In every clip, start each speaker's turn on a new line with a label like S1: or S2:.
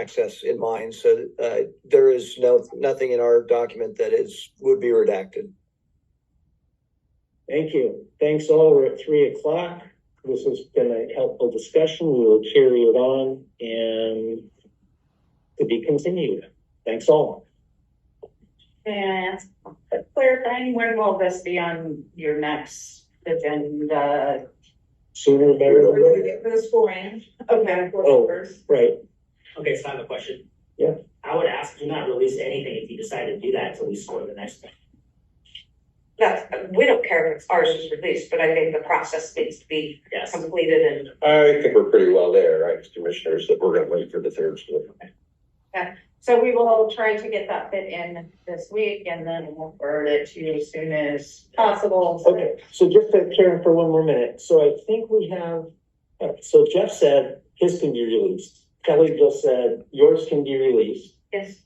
S1: access in mind. So uh, there is no, nothing in our document that is, would be redacted.
S2: Thank you. Thanks all. We're at three o'clock. This has been a helpful discussion. We will carry it on and to be continued. Thanks all.
S3: May I ask, clarifying, when will this be on your next agenda?
S2: Sooner the better. the
S4: We're
S2: better.
S4: gonna get this foreign.
S3: Okay.
S2: Oh. Right.
S5: Okay, so I have a question.
S2: Yeah.
S5: I would ask, do not release anything if you decide to do that until we score the next one.
S6: That's, we don't care if ours is released, but I think the process needs to be
S5: Yes.
S6: completed and
S7: I think we're pretty well there, right, commissioners, that we're gonna wait for the third split.
S3: So we will try to get that fit in this week and then we'll forward it to you as soon as possible.
S2: Okay, so just to Karen for one more minute, so I think we have, all right, so Jeff said his can be released. Kelly just said yours can be released.
S6: is.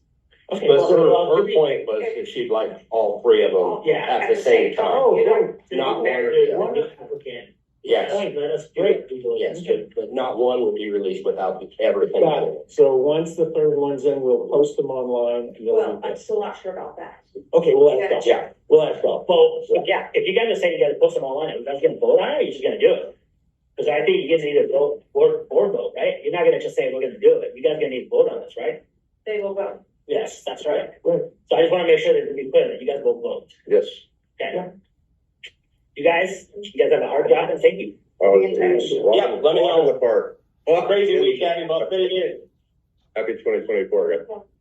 S2: Okay,
S7: But her,
S2: well,
S7: her point was that she'd like all three of them
S5: Yeah.
S7: at the same time.
S2: Oh, no,
S7: Not there.
S2: one-
S5: One applicant,
S2: Oh,
S7: Yes,
S5: let us do
S2: Great.
S5: it, we will,
S7: yes, but, but not one would be released without everything.
S2: Got it. So once the third one's in, we'll post them online. and
S4: Well,
S2: you'll-
S4: I'm still not sure about that.
S2: Okay, well, that's all.
S7: Yeah,
S2: Well, that's all.
S5: Well, yeah, if you're gonna say you gotta post them all on it, that's gonna vote on it, or you're just gonna do it? Cause I think you get to either vote or, or vote, right? You're not gonna just say, we're gonna do it, you guys gonna need to vote on this, right?
S4: They will vote.
S5: Yes, that's right.
S2: Right.
S5: So I just wanna make sure that we clear that you guys will vote,
S7: yes.
S5: okay?
S2: Yeah.
S5: You guys, you guys have a hard job and thank you.
S7: Oh,
S3: The entire-
S7: it's- Yeah, let me
S8: Walk in
S7: know.
S8: the park.
S7: Well, crazy week, Abby, but fit it in.
S8: Happy twenty twenty-four, guys.